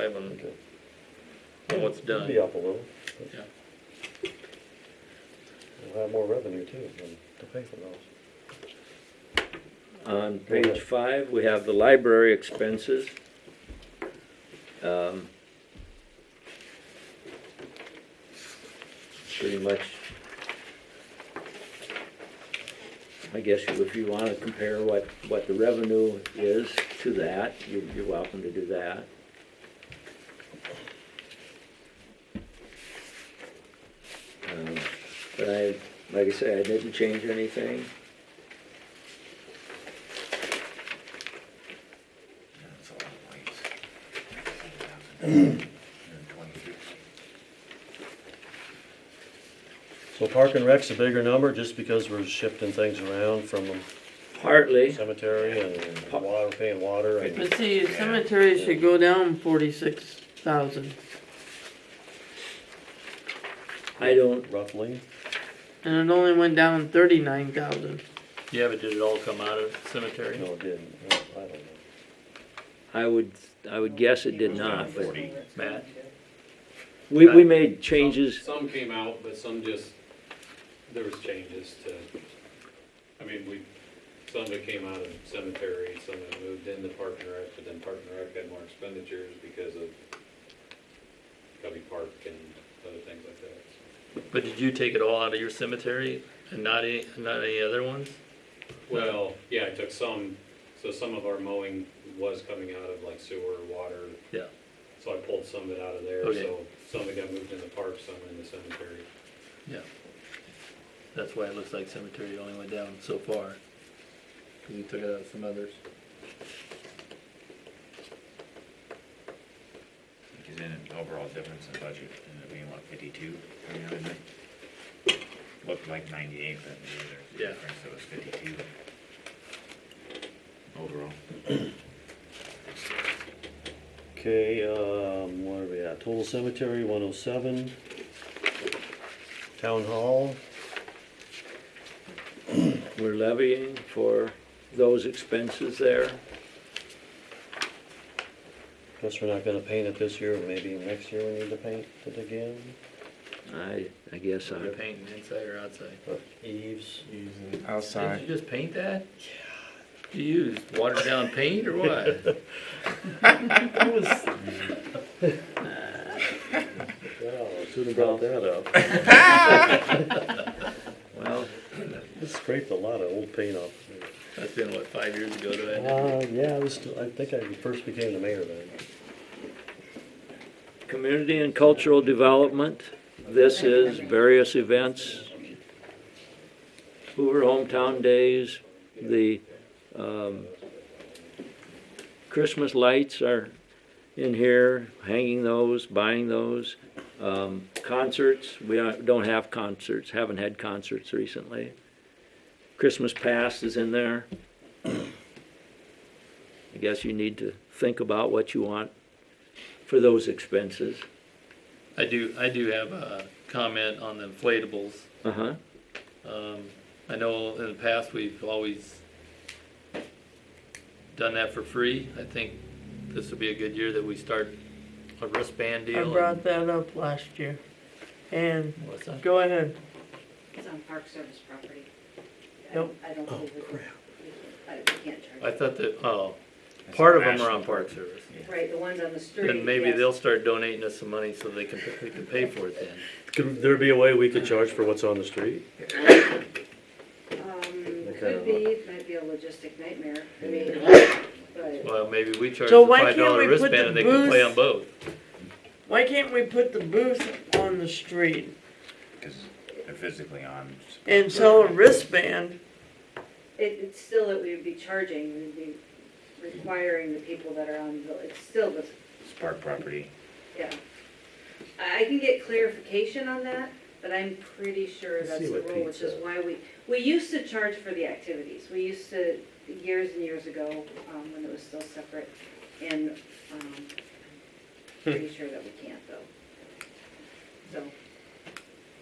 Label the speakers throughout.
Speaker 1: five on on what's done.
Speaker 2: Be up a little.
Speaker 1: Yeah.
Speaker 2: We'll have more revenue too, than to pay for those.
Speaker 3: On page five, we have the library expenses. Um, Pretty much. I guess if you wanna compare what, what the revenue is to that, you're, you're welcome to do that. Um, But I, like I say, I didn't change anything.
Speaker 4: That's a lot of weights.
Speaker 2: So park and rec's a bigger number just because we're shifting things around from
Speaker 3: Partly,
Speaker 2: cemetery and water, paying water and.
Speaker 5: But see, cemetery should go down forty-six thousand,
Speaker 3: I don't,
Speaker 2: Roughly,
Speaker 5: and it only went down thirty-nine thousand.
Speaker 1: Yeah, but did it all come out of
Speaker 2: no,
Speaker 1: cemetery?
Speaker 2: it didn't, No, I don't know.
Speaker 3: I would, I would guess it did not, but
Speaker 1: Matt?
Speaker 3: we, we made changes,
Speaker 6: Some came out, but some just, there was changes to, uh, I mean, we, some that came out of cemetery, some that moved into Park and Rec, but then Park and Rec had more expenditures because of Cubby Park and other things like that.
Speaker 1: But did you take it all out of your cemetery and not any, not any other ones?
Speaker 6: Well, yeah, I took some, so some of our mowing was coming out of like sewer, water.
Speaker 1: Yeah.
Speaker 6: So I pulled some of it out of there,
Speaker 1: Okay.
Speaker 6: so some of it got moved in the park, some in the cemetery.
Speaker 1: That's why it looks like cemetery only went down so far. Cause you took it out of some others.
Speaker 4: Because in an overall difference in budget, and it being what, fifty-two, coming out of it? Looked like ninety-eight, but maybe
Speaker 1: Yeah.
Speaker 4: there's a difference, so it was fifty-two. Overall.
Speaker 2: Okay, um, what are we at, total cemetery, one oh seven. Town hall,
Speaker 3: we're levying for those expenses there.
Speaker 2: guess we're not gonna paint it this year, maybe next year we need to paint it again,
Speaker 3: I, I guess
Speaker 1: You're
Speaker 3: I,
Speaker 1: painting inside or outside?
Speaker 2: but eaves.
Speaker 1: Did you just paint that? Yeah. You used watered down paint or what?
Speaker 2: Wow, who brought that up?
Speaker 3: well,
Speaker 2: This scraped a lot of old paint off.
Speaker 1: That's been what, five years ago to that?
Speaker 2: Uh, yeah, I was, I think I first became the mayor then.
Speaker 3: community and cultural development, this is various events. Hoover Hometown Days, the, um, Christmas lights are in here, hanging those, buying those. Um, concerts, we don't don't have concerts, haven't had concerts recently. Christmas past is in there. I guess you need to think about what you want for those expenses.
Speaker 1: I do, I do have a comment on the inflatables.
Speaker 3: Uh-huh.
Speaker 1: Um, I know in the past, we've always done that for free. I think this will be a good year that we start a wristband
Speaker 5: I
Speaker 1: deal.
Speaker 5: brought that up last year, and,
Speaker 1: and- What's that?
Speaker 5: go ahead,
Speaker 7: It's on Park Service property. I
Speaker 5: Nope.
Speaker 7: don't- I don't believe we can, I we can't
Speaker 1: I
Speaker 7: charge.
Speaker 1: thought that, oh,
Speaker 4: That's
Speaker 1: part of
Speaker 4: a
Speaker 1: them are on
Speaker 4: national-
Speaker 1: Park Service.
Speaker 7: Right, the ones on the street.
Speaker 1: Then maybe
Speaker 7: yes. Um,
Speaker 1: they'll start donating us some money so they can, we can pay for it then.
Speaker 2: Could there be a way we could charge for what's on the street?
Speaker 7: Um,
Speaker 2: kind of-
Speaker 7: could be, might be a logistic nightmare, I mean, but
Speaker 1: Well, maybe we charge
Speaker 5: So
Speaker 1: the
Speaker 5: why
Speaker 1: five
Speaker 5: can't we
Speaker 1: dollar
Speaker 5: put
Speaker 1: wristband
Speaker 5: the
Speaker 1: and they can play
Speaker 5: booth-
Speaker 1: on both.
Speaker 5: why can't we put the booth on the street
Speaker 4: Cause they're physically on.
Speaker 5: and sell a wristband?
Speaker 7: it, it's still that we would be charging, we'd be requiring the people that are on, the it's still the,
Speaker 4: It's park property.
Speaker 7: yeah. I I can get clarification on that, but I'm pretty sure
Speaker 2: Let's
Speaker 7: that's
Speaker 2: see
Speaker 7: the
Speaker 2: what
Speaker 7: rule,
Speaker 2: Pete
Speaker 7: which is
Speaker 2: said.
Speaker 7: why we, we used to charge for the activities. We used to, years and years ago, um, when it was still separate, and, um, pretty sure that we can't though. So,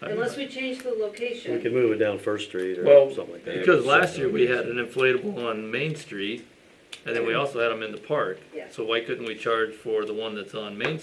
Speaker 7: unless we change the location.
Speaker 2: We could move it down First Street or
Speaker 1: Well,
Speaker 2: something like that.
Speaker 1: Because last year we had an inflatable on Main Street And then we also had them in the park.
Speaker 7: Yeah.
Speaker 1: So why couldn't we charge for the one that's on Main